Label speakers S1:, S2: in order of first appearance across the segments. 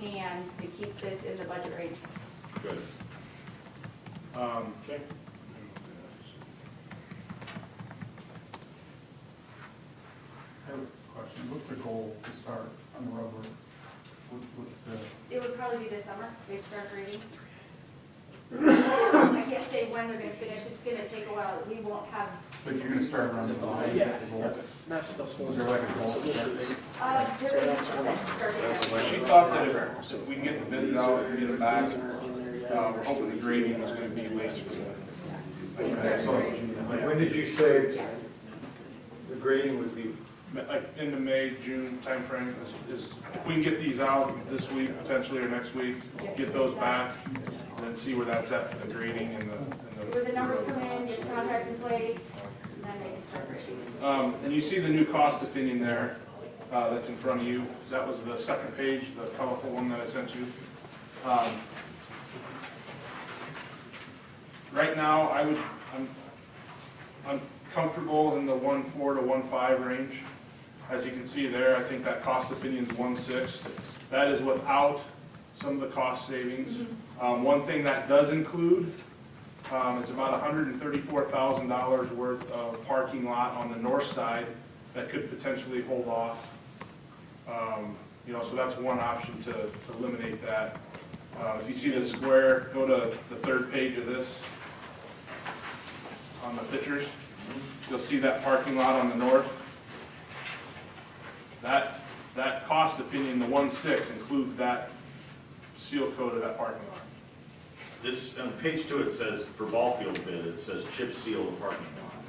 S1: can to keep this in the budget range.
S2: Good. Um, okay.
S3: I have a question. What's the goal to start on the road? What- What's the,
S1: It would probably be this summer, they'd start grading. I can't say when they're gonna finish, it's gonna take a while, we won't have,
S3: but you're gonna start around the line?
S4: Yes.
S3: Is that the
S4: Not stuff.
S3: goal? Is there like a goal?
S4: So
S3: to
S4: this
S3: start?
S4: is-
S1: uh, there
S4: So
S1: is
S4: that's one.
S1: starting.
S2: She thought that if, if we can get the bids out and get it back,
S4: These aren't in there yet.
S2: um, hopefully the grading was gonna be late spring.
S3: Okay, so,
S5: Like,
S3: like,
S5: When did you say
S1: Yeah,
S5: the grading would be?
S2: Like, in the May, June timeframe is, is, if we can get these out this week, potentially, or next week, get those back, and then see where that's at for the grading and the, and the.
S1: where the numbers come in, get the contracts in place, and then they can start grading.
S2: Um, and you see the new cost opinion there, uh, that's in front of you. That was the second page, the colorful one that I sent you. Um, Right now, I would, I'm, I'm comfortable in the one four to one five range. As you can see there, I think that cost opinion's one six. That is without some of the cost savings. Um, one thing that does include um, it's about hundred and thirty-four thousand dollars worth of parking lot on the north side that could potentially hold off. Um, you know, so that's one option to to eliminate that. Uh, if you see the square, go to the third page of this on the pictures. You'll see that parking lot on the north. That, that cost opinion, the one-six includes that seal coat of that parking lot.
S6: This, on page two, it says, for ball field bid, it says chip seal the parking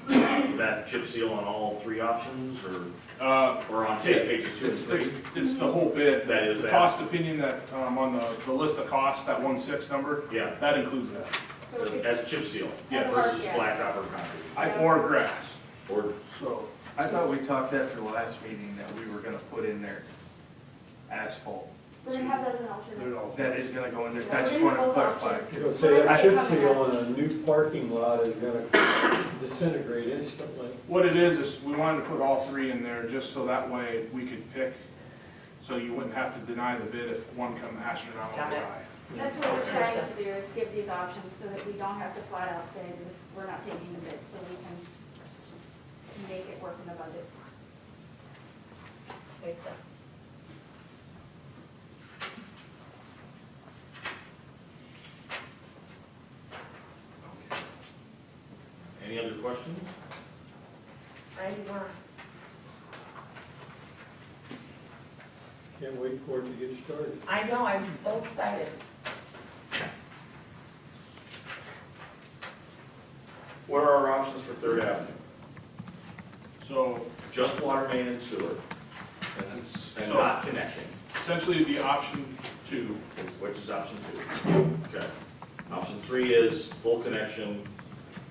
S6: lot. Is that chip seal on all three options, or,
S2: Uh,
S6: or on
S2: Yeah,
S6: pages two and
S2: It's,
S6: three?
S2: it's, it's the whole bid.
S6: That is
S2: The
S6: that.
S2: cost opinion that, um, on the, the list of costs, that one six number,
S6: Yeah,
S2: that includes that.
S1: So we could-
S6: as chip seal,
S1: Yeah.
S6: versus
S1: Yeah.
S6: blacktop or concrete,
S1: I-
S2: Or grass,
S6: or
S2: so,
S7: I thought we talked after the last meeting that we were gonna put in there asphalt.
S1: We're gonna have those in
S2: they're
S1: alternate.
S2: all-
S7: That is gonna go in there,
S1: Yeah, we're
S7: I just
S1: gonna
S7: want to
S1: hold
S7: clarify.
S1: options.
S5: It'll say
S1: Might
S5: a
S1: be
S5: chip
S1: coming
S5: seal
S1: up.
S5: on a new parking lot is gonna disintegrate instantly.
S2: what it is, is we wanted to put all three in there, just so that way we could pick, so you wouldn't have to deny the bid if one come astronomical high.
S1: That's what we're trying to do, is give these options so that we don't have to flat out say this, we're not taking the bid, so we can make it work in the budget.
S8: Makes sense.
S6: any other questions?
S8: Ninety-one.
S5: Can't wait for it to get started.
S8: I know, I'm so excited.
S6: What are our options for Third Avenue?
S2: So
S6: Just water main and sewer, and
S2: So-
S6: not connecting,
S2: essentially, it'd be option two,
S6: which is option two. Okay. Option three is full connection,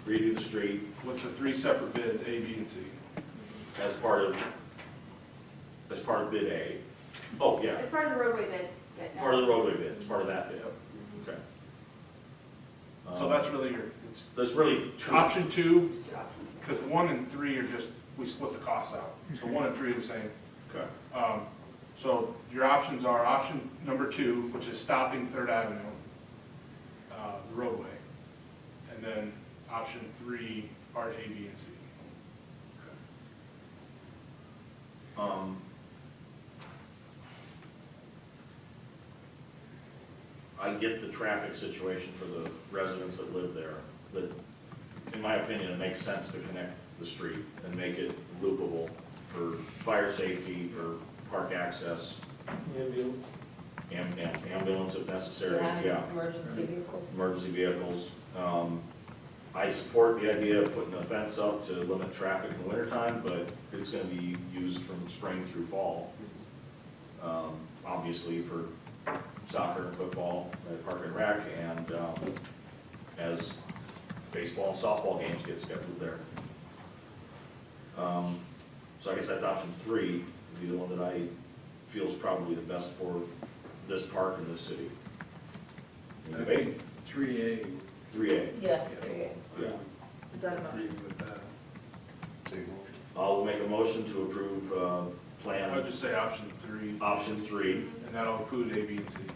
S6: redo the street
S2: with the three separate bids, A, B, and C.
S6: as part of, as part of bid A. Oh, yeah,
S1: It's part of the roadway bid, but no.
S6: Part of the roadway bid, it's part of that bid, okay. Um,
S2: So that's really your, it's
S6: There's really two,
S2: option two,
S1: It's two options.
S2: Because one and three are just, we split the costs out, so one and three are the same.
S6: okay,
S2: Um, So your options are option number two, which is stopping Third Avenue, uh, the roadway, and then option three are A, B, and C.
S6: um. I get the traffic situation for the residents that live there, but in my opinion, it makes sense to connect the street and make it loopable for fire safety, for park access,
S5: Ambulance.
S6: am- am- ambulance if necessary,
S8: Yeah,
S6: yeah.
S8: Emergency vehicles.
S6: emergency vehicles. Um, I support the idea of putting a fence up to limit traffic in the wintertime, but it's gonna be used from spring through fall. Um, Obviously for soccer and football, at Park and Rec, and um, as baseball and softball games get scheduled there. Um, So I guess that's option three, would be the one that I feel is probably the best for this park and this city. Any debate?
S3: Three A,
S6: Three A,
S8: Yes, there you
S6: yeah.
S8: Is that enough?
S3: with that.
S6: I'll make a motion to approve, uh,
S2: I would
S6: plan
S2: just say option three.
S6: option three
S2: and that'll include A, B, and C.